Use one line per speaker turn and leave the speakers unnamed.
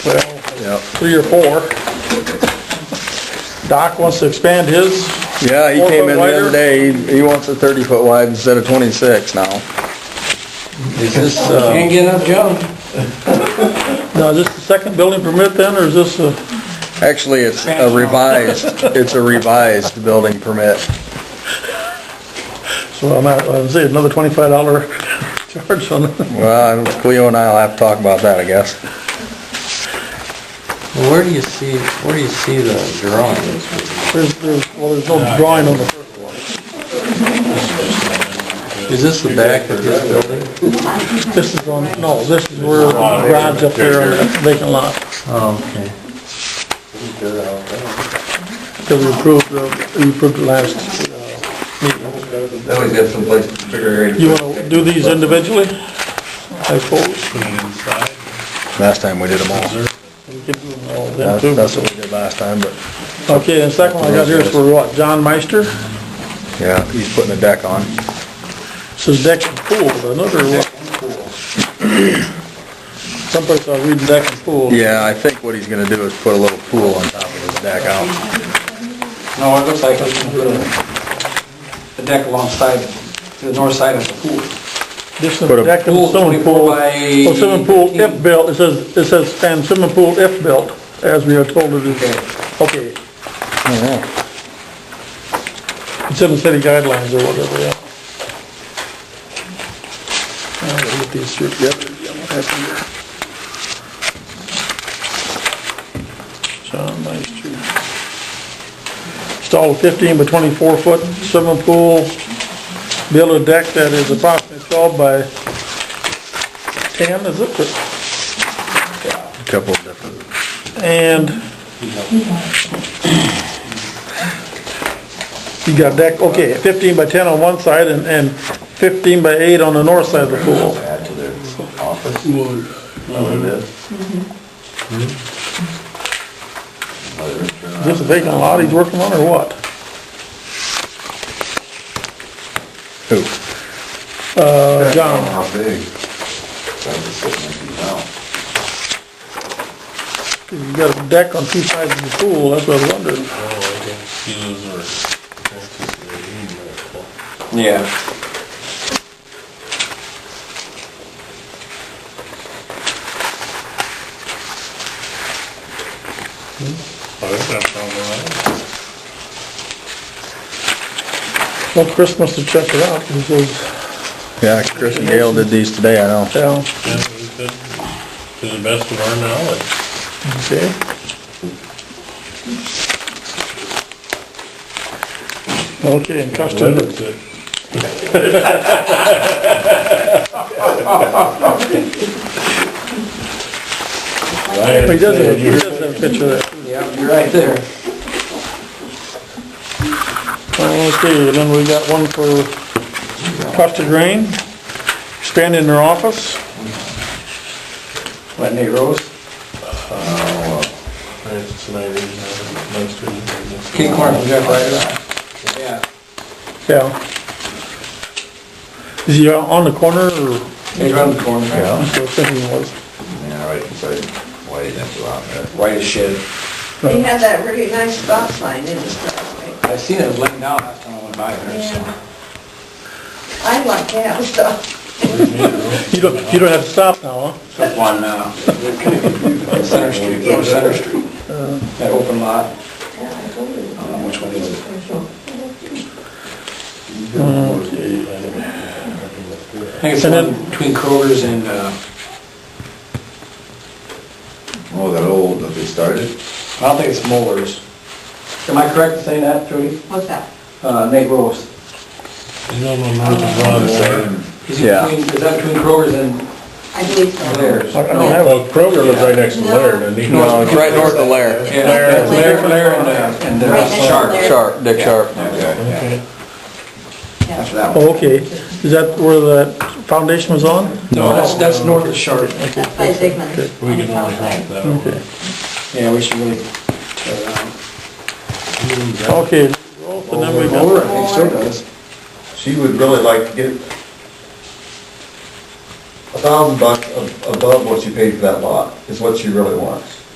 well,
Yeah,
three or four. Doc wants to expand his.
yeah, he
Four
came
foot
in the
wider?
other day, he- he wants a thirty foot wide instead of twenty-six now. Is this, uh,
Can't get enough John.
Now, is this the second building permit then, or is this a,
actually, it's a revised, it's a revised building permit.
so I'm at, I would say another twenty-five dollar charge on it.
Well, Cleo and I'll have to talk about that, I guess.
Where do you see, where do you see the drawings?
There's, there's, well, there's no drawing on the,
Is this the back of this building?
this is on, no, this is where the garage up there on the vacant lot.
Oh, okay.
Because we approved, the- we approved the last,
That way he's got someplace to figure
you wanna do these individually? I suppose,
Last time we did them all.
we could do them all then
That's,
too.
that's what we did last time, but,
Okay, the second one I got here is for what, John Meister?
yeah, he's putting a deck on.
This is deck and pool, another one. Someplace I read deck and pool.
Yeah, I think what he's gonna do is put a little pool on top of his deck out.
No, it looks like it's gonna put a, a eh, deck alongside, to the north side of the pool.
This
Put a
is deck and
pool,
swimming
24
pool.
by
Well, swimming pool if built, it says, it says, and swimming pool if built, as we are told it is. Okay,
Yeah.
it's in the city guidelines or whatever, yeah. I'll get these through, yep. John Meister. Install a fifteen by twenty-four foot swimming pool, build a deck that is approximately twelve by ten, is it?
Couple of different,
And you got deck, okay, fifteen by ten on one side and, and fifteen by eight on the north side of the pool. Is this a vacant lot he's working on or what?
ooh,
Uh, John,
How big? That's the six inches now.
you got a deck on two sides of the pool, that's what I was wondering.
Yeah.
Well, Chris must have checked it out, he says,
yeah, Chris and Gail did these today, I know.
yeah,
Yeah, we did To the best of our knowledge.
okay. Okay, and custom.
Good.
He does have, he does have a picture of that.
Yeah, you're right there.
Okay, and then we got one for Costa Grain, expanding their office.
Let Nate Rose,
Francis Snyder's, uh, Meister's, and this-
King Corn from Jeff Ryder. Yeah.
Yeah. Is he out on the corner or?
He's around the corner.
I was thinking it was.
Yeah, right beside, why you didn't go out there.
White as shit.
They had that really nice stop sign in his driveway.
I seen it laying down last time I went by there, so.
I like to have stuff.
You don't, you don't have to stop now, huh?
Took one, uh, Center Street, over Center Street. That open lot, um, which one is it? I think it's
And
one
then-
between Kroger's and, uh,
Oh, that old, that they started?
I don't think it's Molars. Am I correct in saying that, Trudy?
What's that?
Uh, Nate Rose.
You know, my mother's on there.
Is he
Yeah.
between, is that between Kroger's and
I believe so.
theirs?
I don't have,
Well, Kroger lives right next to Laird, and he
No.
No, it's Uh, right north of Lair,
Yeah, Lair, Lair Lair and, uh, and
Right
uh,
next to
Sharp.
Lair.
Sharp, Dick Sharp.
Okay,
Okay.
that's that one.
oh, okay. Is that where the foundation was on?
No, that's, that's north of Sharp.
That's by Zigman's.
We can only hope that one.
Yeah, we should really tear it down.
Okay, and then we
Over,
got,
I think still does.
She would really like to get a
thousand bucks ab- above what you paid for that lot is what she really wants.